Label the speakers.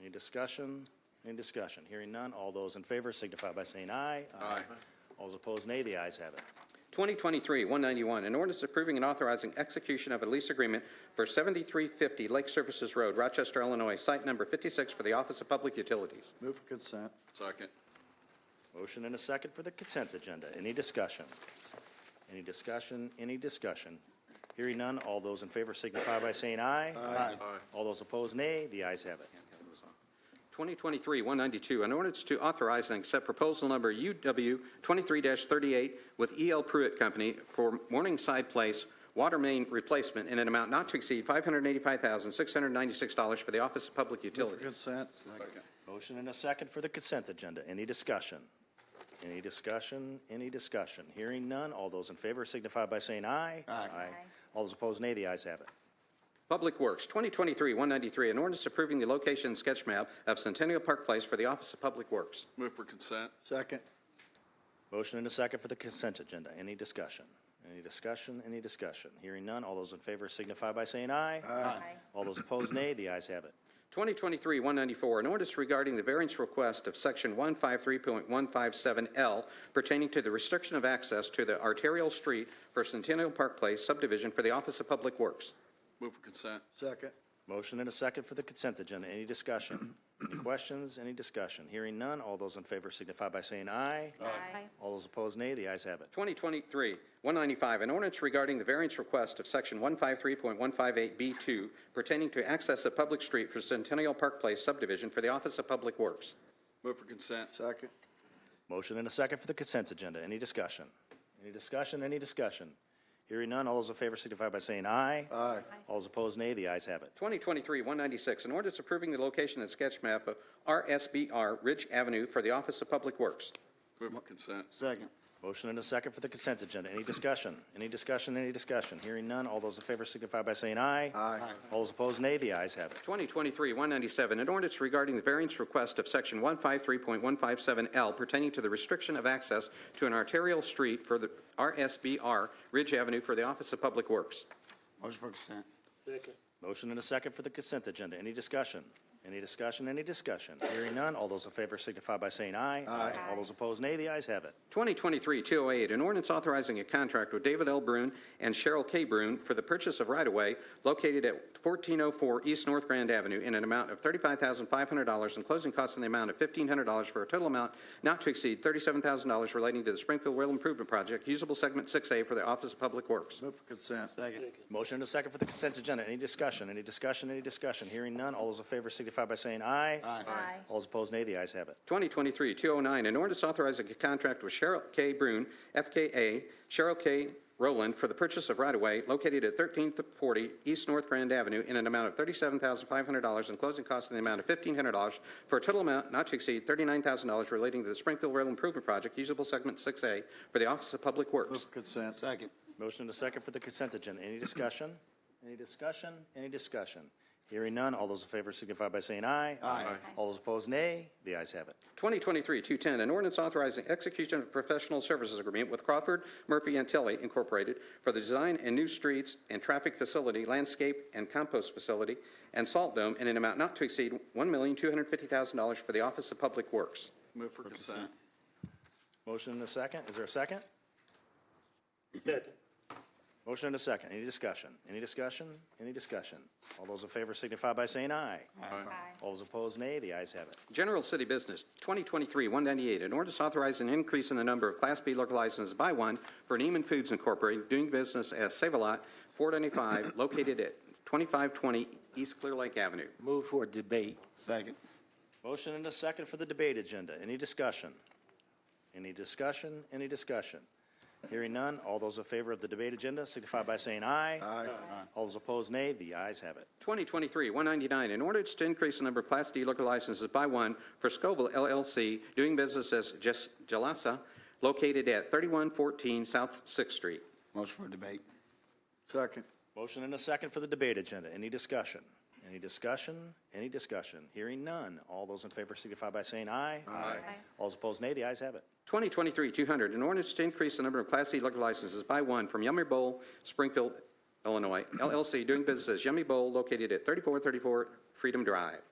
Speaker 1: Any discussion? Any discussion? Hearing none. All those in favor signify by saying aye. Aye. All those opposed, nay. The ayes have it.
Speaker 2: 2023-191, an ordinance approving and authorizing execution of a lease agreement for 7350 Lake Services Road, Rochester, Illinois, site number 56 for the Office of Public Utilities.
Speaker 3: Move for consent.
Speaker 4: Second.
Speaker 1: Motion and a second for the consent agenda. Any discussion? Any discussion? Any discussion? Hearing none. All those in favor signify by saying aye. Aye. All those opposed, nay. The ayes have it.
Speaker 2: 2023-192, an ordinance to authorize and accept proposal number UW 23-38 with E.L. Pruitt Company for Morningside Place water main replacement in an amount not to exceed $585,696 for the Office of Public
Speaker 3: Move for
Speaker 2: Utilities.
Speaker 3: consent.
Speaker 4: Second.
Speaker 1: Motion and a second for the consent agenda. Any discussion? Any discussion? Any discussion? Hearing none. All those in favor signify by saying aye. Aye. All those opposed, nay. The ayes have it.
Speaker 2: Public Works, 2023-193, an ordinance approving the location and sketch map of Centennial Park Place for the Office of Public Works.
Speaker 4: Move for consent.
Speaker 3: Second.
Speaker 1: Motion and a second for the consent agenda. Any discussion? Any discussion? Any discussion? Hearing none. All those in favor signify by saying aye. Aye. All those opposed, nay. The ayes have it.
Speaker 2: 2023-194, an ordinance regarding the variance request of Section 153.157L pertaining to the restriction of access to the arterial street for Centennial Park Place subdivision for the Office of Public Works.
Speaker 4: Move for consent.
Speaker 3: Second.
Speaker 1: Motion and a second for the consent agenda. Any discussion? Any questions? Any discussion? Hearing none. All those in favor signify by saying aye.
Speaker 5: Aye.
Speaker 1: All those opposed, nay. The ayes have it.
Speaker 2: 2023-195, an ordinance regarding the variance request of Section 153.158B2 pertaining to access of public street for Centennial Park Place subdivision for the Office of Public Works.
Speaker 4: Move for consent.
Speaker 3: Second.
Speaker 1: Motion and a second for the consent agenda. Any discussion? Any discussion? Any discussion? Hearing none. All those in favor signify by saying aye.
Speaker 3: Aye.
Speaker 1: All those opposed, nay. The ayes have it.
Speaker 2: 2023-196, an ordinance approving the location and sketch map of RSBR Ridge Avenue for the Office of Public Works.
Speaker 4: Move for consent.
Speaker 3: Second.
Speaker 1: Motion and a second for the consent agenda. Any discussion? Any discussion? Any discussion? Hearing none. All those in favor signify by saying aye.
Speaker 3: Aye.
Speaker 1: All those opposed, nay. The ayes have it.
Speaker 2: 2023-197, an ordinance regarding the variance request of Section 153.157L pertaining to the restriction of access to an arterial street for the RSBR Ridge Avenue for the Office of Public Works.
Speaker 3: Motion for consent.
Speaker 1: Motion and a second for the consent agenda. Any discussion? Any discussion? Any discussion? Hearing none. All those in favor signify by saying aye. Aye. All those opposed, nay. The ayes have it.
Speaker 2: 2023-208, an ordinance authorizing a contract with David L. Brune and Cheryl K. Brune for the purchase of right-of-way located at 1404 East North Grand Avenue in an amount of $35,500 and closing costs in the amount of $1,500 for a total amount not to exceed $37,000 relating to the Springfield Rail Improvement Project, usable segment 6A for the Office of Public Works.
Speaker 3: Move for consent. Second.
Speaker 1: Motion and a second for the consent agenda. Any discussion? Any discussion? Any discussion? Hearing none. All those in favor signify by saying aye. Aye.
Speaker 5: Aye.
Speaker 1: All those opposed, nay. The ayes have it.
Speaker 2: 2023-209, an ordinance authorizing a contract with Cheryl K. Brune, FKA Cheryl K. Rowland, for the purchase of right-of-way located at 1340 East North Grand Avenue in an amount of $37,500 and closing costs in the amount of $1,500 for a total amount not to exceed $39,000 relating to the Springfield Rail Improvement Project, usable segment 6A, for the Office of Public Works.
Speaker 3: Move for consent. Second.
Speaker 1: Motion and a second for the consent agenda. Any discussion? Any discussion? Any discussion? Hearing none. All those in favor signify by saying aye. Aye. All those opposed, nay. The ayes have it.
Speaker 2: 2023-210, an ordinance authorizing execution of a professional services agreement with Crawford Murphy and Tilly Incorporated for the design and new streets and traffic facility, landscape and compost facility, and salt dome in an amount not to exceed $1,250,000 for the Office of Public Works.
Speaker 4: Move for consent.
Speaker 1: Motion and a second. Is there a second? Second. Motion and a second. Any discussion? Any discussion? Any discussion? All those in favor signify by saying aye.
Speaker 4: Aye.
Speaker 1: All those opposed, nay. The ayes have it.
Speaker 2: General City Business, 2023-198, an ordinance authorizing an increase in the number of Class B liquor licenses by one for Neiman Foods Incorporated, doing business as Save-A-Lot, 495, located at 2520 East Clear Lake Avenue.
Speaker 6: Move for debate. Second.
Speaker 1: Motion and a second for the debate agenda. Any discussion? Any discussion? Any discussion? Hearing none. All those in favor of the debate agenda signify by saying aye. Aye. All those opposed, nay. The ayes have it.
Speaker 2: 2023-199, in order to increase the number of Class D liquor licenses by one for Scoville LLC, doing business as Jes- Jalassa, located at 3114 South Sixth Street.
Speaker 6: Motion for debate.
Speaker 3: Second.
Speaker 1: Motion and a second for the debate agenda. Any discussion? Any discussion? Any discussion? Hearing none. All those in favor signify by saying aye. Aye. All those opposed, nay. The ayes have it.
Speaker 2: 2023-200, in order to increase the number of Class C liquor licenses by one from Yummy Bowl, Springfield, Illinois, LLC, doing business as Yummy Bowl, located at 3434 Freedom Drive.